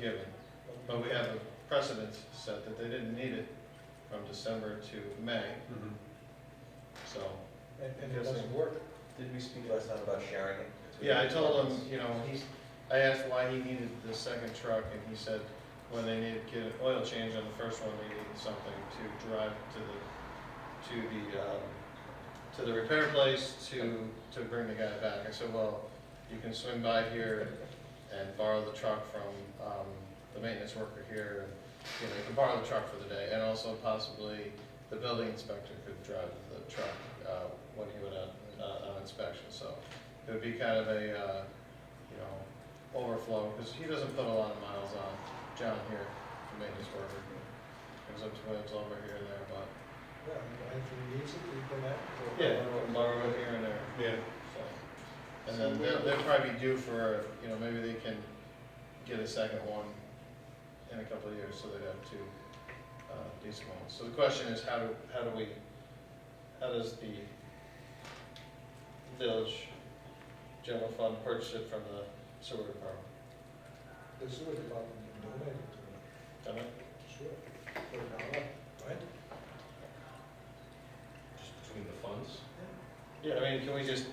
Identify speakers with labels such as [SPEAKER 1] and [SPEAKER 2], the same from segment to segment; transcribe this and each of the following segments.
[SPEAKER 1] given, but we have a precedent set that they didn't need it from December to May,
[SPEAKER 2] Mm-hmm.
[SPEAKER 1] so.
[SPEAKER 3] And,
[SPEAKER 1] and it doesn't
[SPEAKER 3] work.
[SPEAKER 4] Did we speak last time about sharing it?
[SPEAKER 1] Yeah, I told him, you know, I asked why he needed the second truck, and he said when they needed to get an oil change on the first one, they needed something to drive to the, to the, um, to the repair place to, to bring the guy back. I said, well, you can swing by here and borrow the truck from, um, the maintenance worker here, and, you know, you can borrow the truck for the day, and also possibly the building inspector could drive the truck, uh, when he went out, uh, on inspection, so it would be kind of a, uh, you know, overflow, because he doesn't put a lot of miles on John here, the maintenance worker. Comes up to Williams over here and there, but.
[SPEAKER 3] Yeah, and if he needs it, he can have.
[SPEAKER 1] Borrow it here and there,
[SPEAKER 5] Yeah,
[SPEAKER 1] so. And then they'll, they'll probably be due for, you know, maybe they can get a second one in a couple of years, so they'd have two, uh, decent ones. So the question is, how do, how do we, how does the village general fund purchase it from the sewer department?
[SPEAKER 3] The sewer department can donate it to
[SPEAKER 1] Done it?
[SPEAKER 3] him, sure. For a dollar, right?
[SPEAKER 5] just between the funds,
[SPEAKER 1] Yeah, I mean, can we just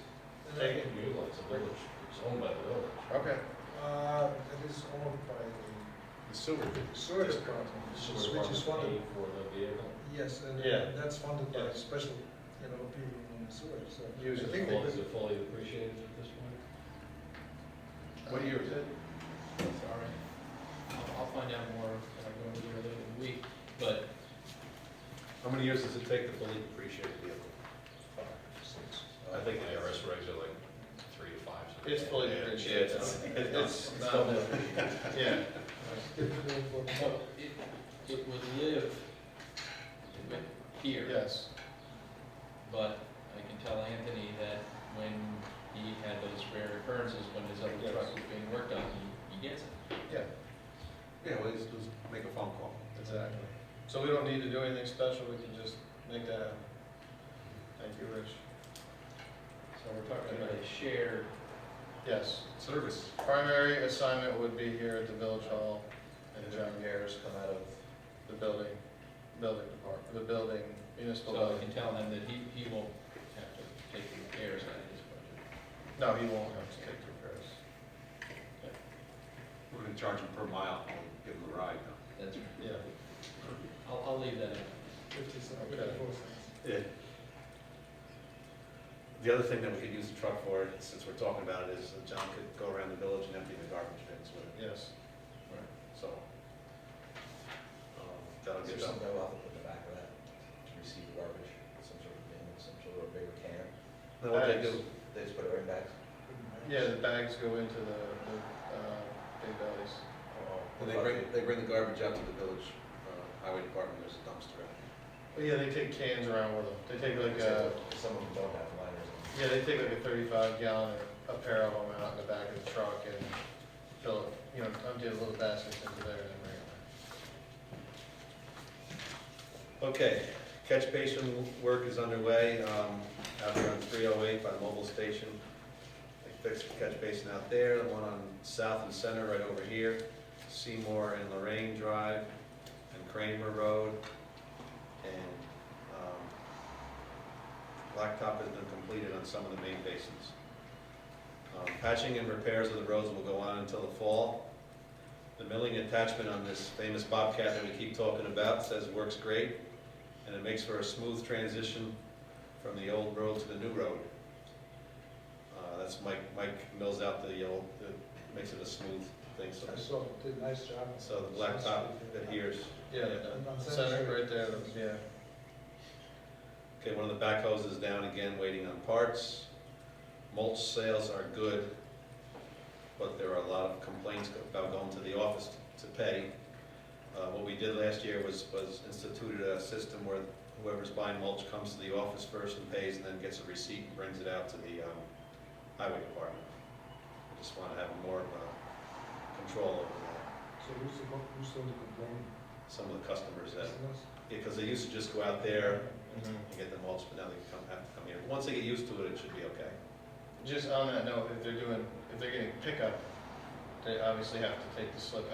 [SPEAKER 5] they can utilize the village, it's owned by the village.
[SPEAKER 1] Okay.
[SPEAKER 3] Uh, that is owned by
[SPEAKER 1] The sewer.
[SPEAKER 3] the sewer department, which is funded,
[SPEAKER 5] Pay For the vehicle.
[SPEAKER 3] yes, and
[SPEAKER 1] Yeah.
[SPEAKER 3] that's funded by
[SPEAKER 1] Yeah.
[SPEAKER 3] special, you know, people in the sewer, so.
[SPEAKER 1] Use
[SPEAKER 3] I
[SPEAKER 1] it
[SPEAKER 3] think
[SPEAKER 1] for
[SPEAKER 3] they
[SPEAKER 5] Well, Is
[SPEAKER 3] could-
[SPEAKER 5] it fully appreciated at this point?
[SPEAKER 1] What year is it?
[SPEAKER 2] Sorry. I'll, I'll find out more when I go over there later in the week, but
[SPEAKER 5] How many years does it take to fully depreciate a vehicle?
[SPEAKER 3] Five, six.
[SPEAKER 5] I think the IRS regs are like three to five. something
[SPEAKER 1] It's
[SPEAKER 5] like
[SPEAKER 1] fully
[SPEAKER 5] that. Yeah,
[SPEAKER 1] depreciated.
[SPEAKER 5] yeah, it's-
[SPEAKER 1] It's,
[SPEAKER 5] it's
[SPEAKER 1] not-
[SPEAKER 5] double.
[SPEAKER 1] yeah.
[SPEAKER 3] Give it to them for-
[SPEAKER 2] so it, it would live with here.
[SPEAKER 1] Yes.
[SPEAKER 2] But I can tell Anthony that when he had those rare occurrences, when his other
[SPEAKER 1] Yes.
[SPEAKER 2] truck was being worked on, he, he gets it.
[SPEAKER 1] Yeah,
[SPEAKER 4] Yeah, well, just, just make a phone call.
[SPEAKER 1] exactly. So we don't need to do anything special, we can just make that happen. Thank you, Rich.
[SPEAKER 2] So we're talking about a shared,
[SPEAKER 1] Yes.
[SPEAKER 4] Service.
[SPEAKER 1] Primary assignment would be here at the village hall
[SPEAKER 4] And
[SPEAKER 1] and
[SPEAKER 4] the
[SPEAKER 1] John,
[SPEAKER 4] repairs come out of,
[SPEAKER 1] the building, building department, the building, municipal
[SPEAKER 2] so I
[SPEAKER 1] building.
[SPEAKER 2] can tell him that he, he won't have to take the repairs out of his budget.
[SPEAKER 1] No, he won't have to take repairs.
[SPEAKER 4] we're gonna charge them per mile, and give them a ride now.
[SPEAKER 2] That's,
[SPEAKER 1] Yeah.
[SPEAKER 2] I'll, I'll leave that in.
[SPEAKER 3] Fifty cents,
[SPEAKER 1] Okay.
[SPEAKER 3] fifty-four cents.
[SPEAKER 6] Yeah. The other thing that we could use the truck for, since we're talking about it, is that John could go around the village and empty the garbage bins with it,
[SPEAKER 1] Yes.
[SPEAKER 6] so. um, That'll
[SPEAKER 4] Is there
[SPEAKER 6] get
[SPEAKER 4] something
[SPEAKER 6] done.
[SPEAKER 4] that we'll have to put in the back of that to receive garbage, some sort of bin, some sort of bigger can?
[SPEAKER 6] Then what they
[SPEAKER 1] Bags.
[SPEAKER 6] do,
[SPEAKER 4] They just put it right back?
[SPEAKER 1] Yeah, the bags go into the, the, uh, big bellies.
[SPEAKER 4] uh,
[SPEAKER 6] when they bring, they bring the garbage out to the village, uh, highway department, there's a dumpster out.
[SPEAKER 1] But yeah, they take cans around with them. They take like a,
[SPEAKER 4] Except that Some of them don't have liners.
[SPEAKER 1] yeah, they take like a thirty-five gallon, a pair of them out in the back of the truck and fill, it, you know, empty a little basket into there and then bring it back.
[SPEAKER 6] Okay, catch basin work is underway, um, out there on three oh eight by the mobile station. They fixed the catch basin out there, the one on South and Center right over here, Seymour and Lorraine Drive, and Kramer Road, and, um, blacktop has been completed on some of the main basins. Um, patching and repairs of the roads will go on until the fall. The milling attachment on this famous Bobcat that we keep talking about says works great, and it makes for a smooth transition from the old road to the new road. Uh, that's Mike, Mike mills out the old, the- makes it a smooth thing, so,
[SPEAKER 3] I saw, it did a nice job.
[SPEAKER 6] so the blacktop adheres.
[SPEAKER 1] Yeah, the- the uh, center right there, the- yeah.
[SPEAKER 6] Okay, one of the backhoes is down again, waiting on parts. Mulch sales are good, but there are a lot of complaints about going to the office to pay. Uh, What we did last year was, was instituted a system where whoever's buying mulch comes to the office first and pays, and then gets a receipt and brings it out to the um, highway department. I Just want to have more of a control over that.
[SPEAKER 3] So who's the, one- who's the one complaining?
[SPEAKER 6] some of the customers that,
[SPEAKER 3] Customers?
[SPEAKER 6] because they used to just go out there
[SPEAKER 1] Mm-hmm.
[SPEAKER 6] and get the mulch, but now they come, have to come here. But Once they get used to it, it should be okay.
[SPEAKER 1] Just on that note, if they're doing, if they're getting pickup, they obviously have to take the slip out.